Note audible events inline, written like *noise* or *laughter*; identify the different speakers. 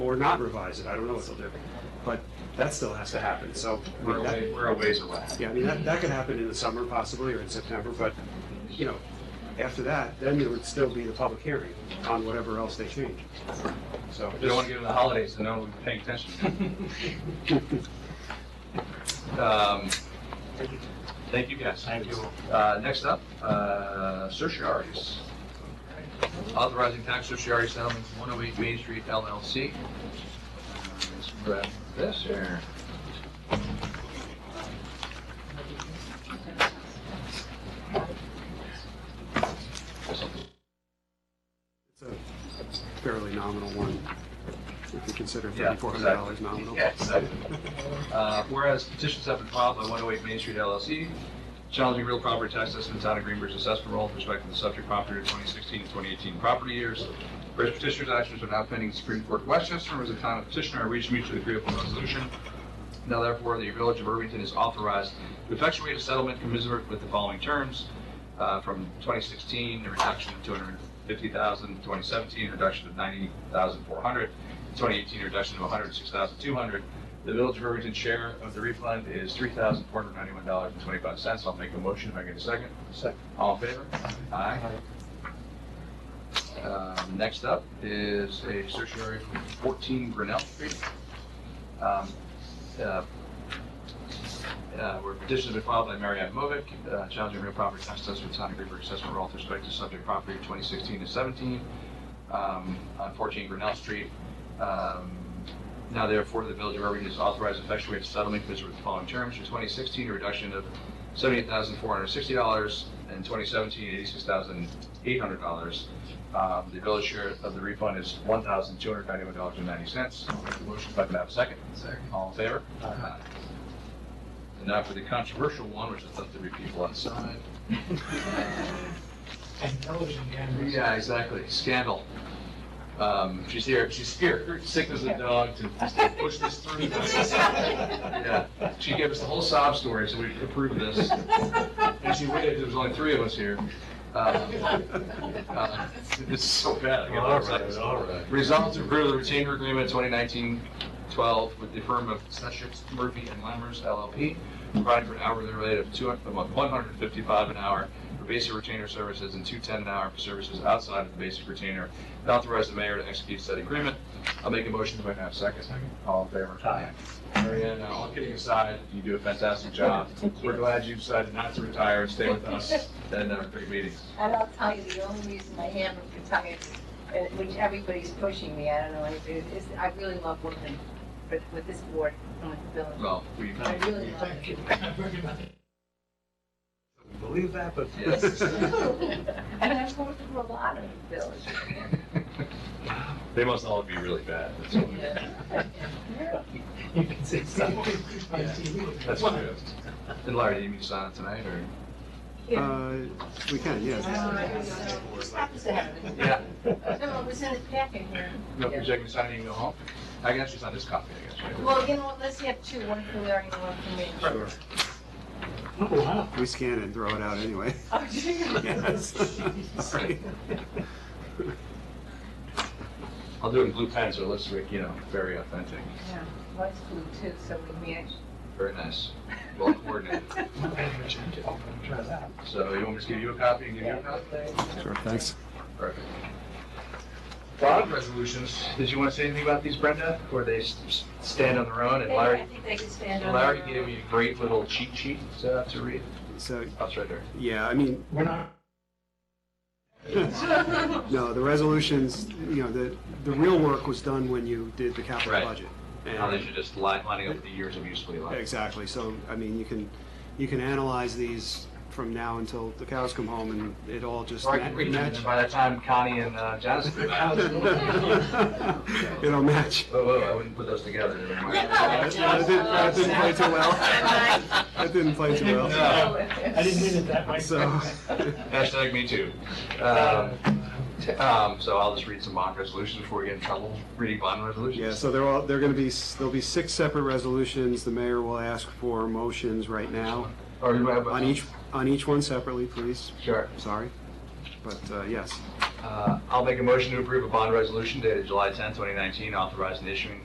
Speaker 1: or not revise it, I don't know what they'll do, but that still has to happen, so. I
Speaker 2: We're
Speaker 1: mean,
Speaker 2: a
Speaker 1: that-
Speaker 2: way- we're a ways away.
Speaker 1: Yeah, I mean, that, that could happen in the summer possibly, or in September, but, you know, after that, then there would still be the public hearing on whatever else they change. So,
Speaker 2: We don't want
Speaker 1: just,
Speaker 2: to give them the holidays to know we're paying attention. *laughs* Um, Thank you, guys. Thank you. Next up, uh, certiorari's. Authorizing tax certiorari settlement 108 Main Street LLC. Let's grab this here.
Speaker 1: it's a fairly nominal one, if you consider
Speaker 2: Yeah,
Speaker 1: thirty-four hundred dollars nominal.
Speaker 2: Yeah, exactly. Uh, Whereas petitions have been filed by 108 Main Street LLC, challenging real property tax assessment town of Greenberg's assessment roll with respect to the subject property in 2016 and 2018 property years. Whereas petitioner's actions are now pending in Supreme Court of Westchester, whereas the town of petitioner reached mutually agreeable resolution. Now therefore, the village of Irvington is authorized to effectuate a settlement commensurate with the following terms. Uh, From 2016, a reduction of 250,000, 2017, a reduction of 90,400, 2018 reduction to 106,200. The Village of Irvington share of the refund is $3,491.25. I'll make a motion if I get a second.
Speaker 1: Second.
Speaker 2: All in favor? Aye. Um, Next up is a certiorari from 14 Grinnell Street. Um, uh, uh, Where petition has been filed by Mary Ann Movick, uh, challenging real property tax assessment, Sonic River assessment roll with respect to subject property 2016 to 17 um, on 14 Grinnell Street. Um, Now therefore, the Village of Irvington is authorized to effectuate a settlement because with the following terms, for 2016, a reduction of $78,460, and 2017, $86,800. Um, The village share of the refund is $1,291.90. I'll make the Motion, if I could have a second. Second. All in favor? Aye. And now for the controversial one, which is let the people outside.
Speaker 3: And television cameras.
Speaker 2: Yeah, exactly. Scandal. Um, she's here. She's here. Sick as a dog to to push this through. yeah, she gave us the whole sob story, so we approved this. And she waited. There was only three of us here. Um, uh, it's so bad. I get upset.
Speaker 4: right.
Speaker 2: Resolved to approve the retainer agreement 2019-12 with the firm of Sessions, Murphy and Lammers LLP, providing for an hourly rate of 200 a month, 155 an hour for basic retainer services and 210 an hour for services outside of the basic retainer, and authorize the mayor to execute said agreement. I'll make a motion if I can have a second. All in favor? Aye. Marianne, all kidding aside, you do a fantastic job. We're glad you decided not to retire and stay with us and our big meetings.
Speaker 5: And I'll tell you, the only reason I haven't retired, uh, which everybody's pushing me, I don't know, if it is I really love working with, with this board and with the village.
Speaker 2: Well, we,
Speaker 5: I really love
Speaker 3: Thank you. I'm working on it.
Speaker 1: Believe that, but.
Speaker 2: *laughs* Yes.
Speaker 5: it. And I've worked for a lot of
Speaker 2: *laughs*
Speaker 5: the village.
Speaker 2: they must all be really bad. That's all.
Speaker 3: You can say something on TV.
Speaker 2: That's true. And Larry, do you mean to sign it tonight, or?
Speaker 1: Uh, we can, yes.
Speaker 5: This happens to happen.
Speaker 2: Yeah.
Speaker 5: No, it was in the packet here.
Speaker 2: No, if you're taking sign it, you can go home? I guess it's not this copy, I guess, right?
Speaker 5: Well, you know what, let's have two, one for Larry and one for me.
Speaker 1: Sure.
Speaker 3: Oh, wow.
Speaker 1: We scan it and throw it out anyway. *laughs*
Speaker 5: Oh, do you?
Speaker 1: Yes. *laughs* Sorry.
Speaker 2: I'll do it in blue pen, so it looks, like, you know, very authentic.
Speaker 5: Yeah, mine's blue too, so we match.
Speaker 2: Very nice. Well coordinated.
Speaker 3: I'm gonna change it. I'm gonna try that.
Speaker 2: So you want me to give you a copy and give you a
Speaker 5: *laughs* Yeah.
Speaker 2: copy?
Speaker 1: Sure, thanks.
Speaker 2: Perfect. Bond resolutions, did you want to say anything about these, Brenda? Or they s- s- stand on their own, and
Speaker 5: I
Speaker 2: Larry,
Speaker 5: think they can stand on.
Speaker 2: Larry
Speaker 5: their own.
Speaker 2: gave me a great little cheat sheet uh, to read.
Speaker 1: So,
Speaker 2: That's right there.
Speaker 1: yeah, I mean,
Speaker 3: We're not,
Speaker 1: No, the resolutions, you know, the, the real work was done when you did the capital
Speaker 2: Right.
Speaker 1: budget.
Speaker 2: Now
Speaker 1: And-
Speaker 2: that you're just li- lining up the years of usefully life.
Speaker 1: Exactly, so, I mean, you can, you can analyze these from now until the cows come home and it all just
Speaker 2: Or I can
Speaker 1: ma-
Speaker 2: read them,
Speaker 1: match.
Speaker 2: and by that time Connie and uh, Jonathan. are out.
Speaker 1: *laughs* It'll match.
Speaker 2: Whoa, whoa, I wouldn't put those together. never mind.
Speaker 1: That that didn't, that didn't play too well. That didn't play too well,
Speaker 2: No.
Speaker 3: I didn't mean it that way. *laughs*
Speaker 1: so. *laughs*
Speaker 2: Hashtag me too. Um, t- um, So I'll just read some bond resolutions before we get in trouble reading bond resolutions.
Speaker 1: Yeah, so they're all, they're gonna be, s- there'll be six separate resolutions. The mayor will ask for motions right now.
Speaker 2: Or you might have-
Speaker 1: On each, on each one separately, please.
Speaker 2: Sure.
Speaker 1: sorry. But uh, yes,
Speaker 2: Uh, I'll make a motion to approve a bond resolution dated July 10, 2019, authorizing the issuing